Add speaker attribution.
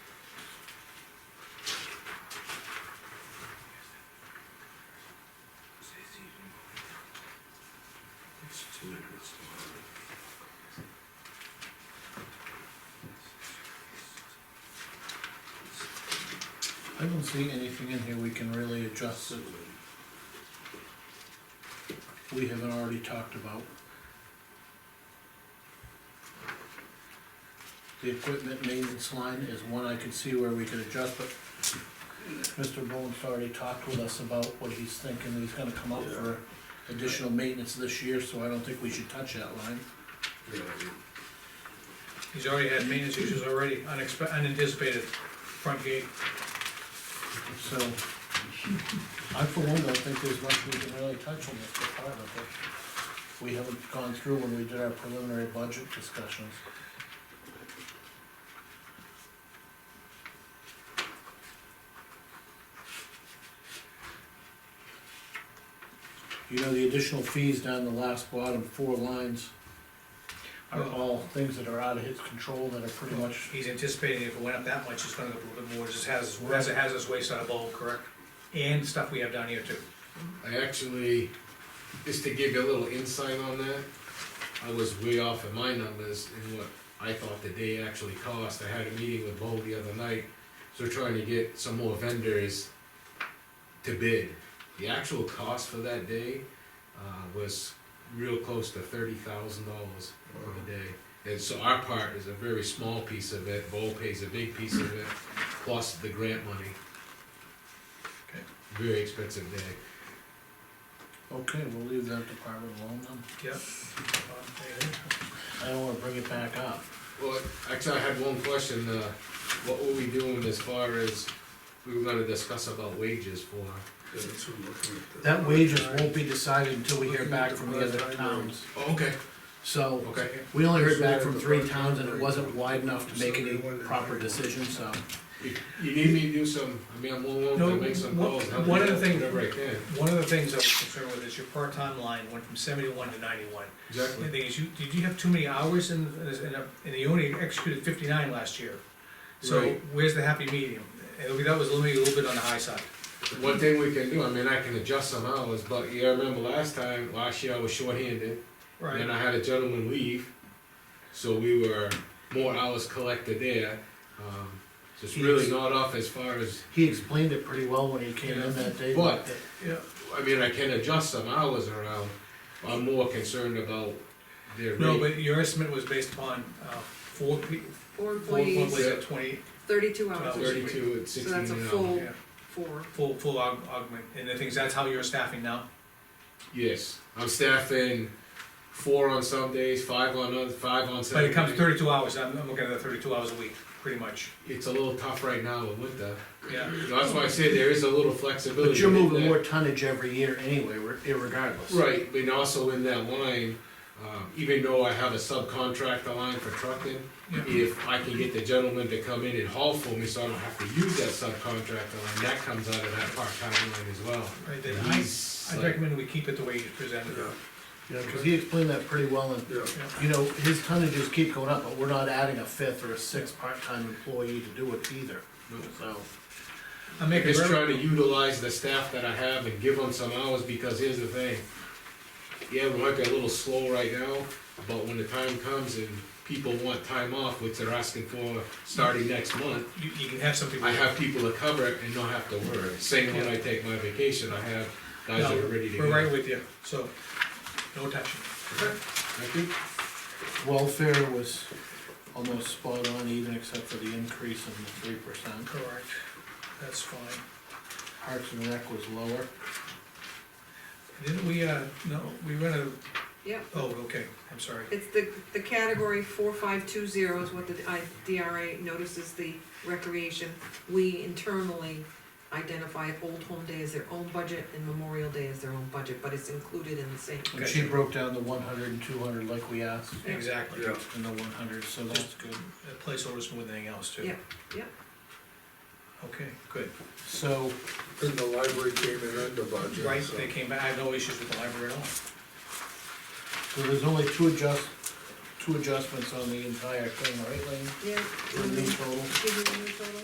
Speaker 1: I don't see anything in here we can really adjust that we haven't already talked about. The equipment maintenance line is one I can see where we could adjust, but Mr. Bowen's already talked with us about what he's thinking, he's gonna come up for additional maintenance this year, so I don't think we should touch that line.
Speaker 2: He's already had maintenance issues already, unexpe- unanticipated, front gate.
Speaker 1: So, I for one don't think there's much we can really touch on this department, but we haven't gone through when we did our preliminary budget discussions. You know, the additional fees down the last bottom four lines are all things that are out of his control that are pretty much
Speaker 2: He's anticipating if it went up that much, it's gonna go up a little bit more, just has, has a hazardous waste out of bulk, correct? And stuff we have down here too.
Speaker 3: I actually, just to give you a little insight on that, I was way off in my numbers in what I thought the day actually cost. I had a meeting with Bo the other night, so we're trying to get some more vendors to bid. The actual cost for that day, uh, was real close to thirty thousand dollars for the day. And so our part is a very small piece of it, Bo pays a big piece of it, plus the grant money.
Speaker 2: Okay.
Speaker 3: Very expensive day.
Speaker 1: Okay, we'll leave that department alone then.
Speaker 2: Yep.
Speaker 1: I don't wanna bring it back up.
Speaker 3: Well, actually, I had one question, uh, what were we doing as far as, we were gonna discuss about wages for,
Speaker 1: That wages won't be decided until we hear back from the other towns.
Speaker 3: oh, okay,
Speaker 1: So,
Speaker 3: okay.
Speaker 1: we only heard back from three towns and it wasn't wide enough to make any proper decision, so.
Speaker 3: You, you need me to do some, I mean, I'm willing to
Speaker 2: No,
Speaker 3: make some
Speaker 2: one-
Speaker 3: calls, help
Speaker 2: one
Speaker 3: you
Speaker 2: of the
Speaker 3: out,
Speaker 2: things-
Speaker 3: whatever I can,
Speaker 2: One of the things I was concerned with is your part-time line went from seventy-one to ninety-one. The
Speaker 3: exactly.
Speaker 2: thing is, you, did you have too many hours in, in, a- and you only executed fifty-nine last year? So
Speaker 3: Right.
Speaker 2: where's the happy medium? And that was limiting a little bit on the high side.
Speaker 3: One thing we can do, I mean, I can adjust some hours, but yeah, I remember last time, last year I was shorthanded, and then I had a gentleman leave, so we were more hours collected there, um, just really
Speaker 1: Yes.
Speaker 3: not off as far as
Speaker 1: He explained it pretty well when he came in that day.
Speaker 3: But-
Speaker 2: Yeah,
Speaker 3: I mean, I can adjust some hours around, I'm more concerned about their
Speaker 2: no,
Speaker 3: rate.
Speaker 2: but your estimate was based upon, uh, four pe-
Speaker 4: Four
Speaker 2: four
Speaker 4: employees,
Speaker 2: employees at twenty,
Speaker 4: thirty-two hours a week,
Speaker 3: Thirty-two at
Speaker 4: so
Speaker 3: sixteen
Speaker 4: that's a
Speaker 3: an hour.
Speaker 4: full
Speaker 2: yeah.
Speaker 4: four.
Speaker 2: full, full aug- augment, and the things, that's how you're staffing now?
Speaker 3: Yes, I'm staffing four on some days, five on other, five on
Speaker 2: But
Speaker 3: Saturday.
Speaker 2: it comes thirty-two hours, I'm, I'm looking at the thirty-two hours a week, pretty much,
Speaker 3: It's a little tough right now with winter,
Speaker 2: yeah.
Speaker 3: that's why I say there is a little flexibility.
Speaker 1: But you're
Speaker 3: in
Speaker 1: moving
Speaker 3: that.
Speaker 1: more tonnage every year anyway, re- irregardless.
Speaker 3: Right, but also in that line, um, even though I have a subcontractor line for trucking,
Speaker 2: Yeah.
Speaker 3: if I can get the gentleman to come in and haul for me, so I don't have to use that subcontractor line, that comes out of that part-time line as well.
Speaker 2: Right, then I,
Speaker 3: He's
Speaker 2: I
Speaker 3: like-
Speaker 2: recommend we keep it the way you presented it.
Speaker 1: You know, cause he explained that pretty well and,
Speaker 5: Yeah,
Speaker 1: you know, his tonnages keep going up, but we're not adding a fifth or a sixth part-time employee to do it either, so.
Speaker 2: I'm making,
Speaker 3: uh, Just
Speaker 2: very-
Speaker 3: trying to utilize the staff that I have and give them some hours, because here's the thing. Yeah, we might be a little slow right now, but when the time comes and people want time off, which they're asking for starting next month,
Speaker 2: you, you can have some people.
Speaker 3: I have people to cover it and not have to worry. Same when I take my vacation, I have guys that are ready to
Speaker 2: No, We're right
Speaker 3: go.
Speaker 2: with you, so, no touching.
Speaker 3: Thank you.
Speaker 1: Welfare was almost spot on even except for the increase in the three percent.
Speaker 2: Correct, that's fine.
Speaker 1: Parks and Rec was lower.
Speaker 2: Didn't we, uh, no, we went a,
Speaker 4: Yep,
Speaker 2: oh, okay, I'm sorry.
Speaker 4: it's the, the category four five two zero is what the I- DRA notices the recreation. We internally identify Old Home Day as their own budget and Memorial Day as their own budget, but it's included in the same.
Speaker 1: And she broke down the one hundred and two hundred like we asked,
Speaker 2: Exactly,
Speaker 5: yeah.
Speaker 1: and the one hundred, so Oh, that's good.
Speaker 2: Uh, placeholders more than anything else too.
Speaker 4: Yeah, yeah.
Speaker 2: Okay, good.
Speaker 1: So,
Speaker 5: And the library came in under budget.
Speaker 2: Right,
Speaker 5: so-
Speaker 2: they came back, I have no issues with the library at all.
Speaker 1: so there's only two adjust, two adjustments on the entire thing, right, Lane?
Speaker 4: Yeah.
Speaker 1: In the total?
Speaker 4: Give me the new total.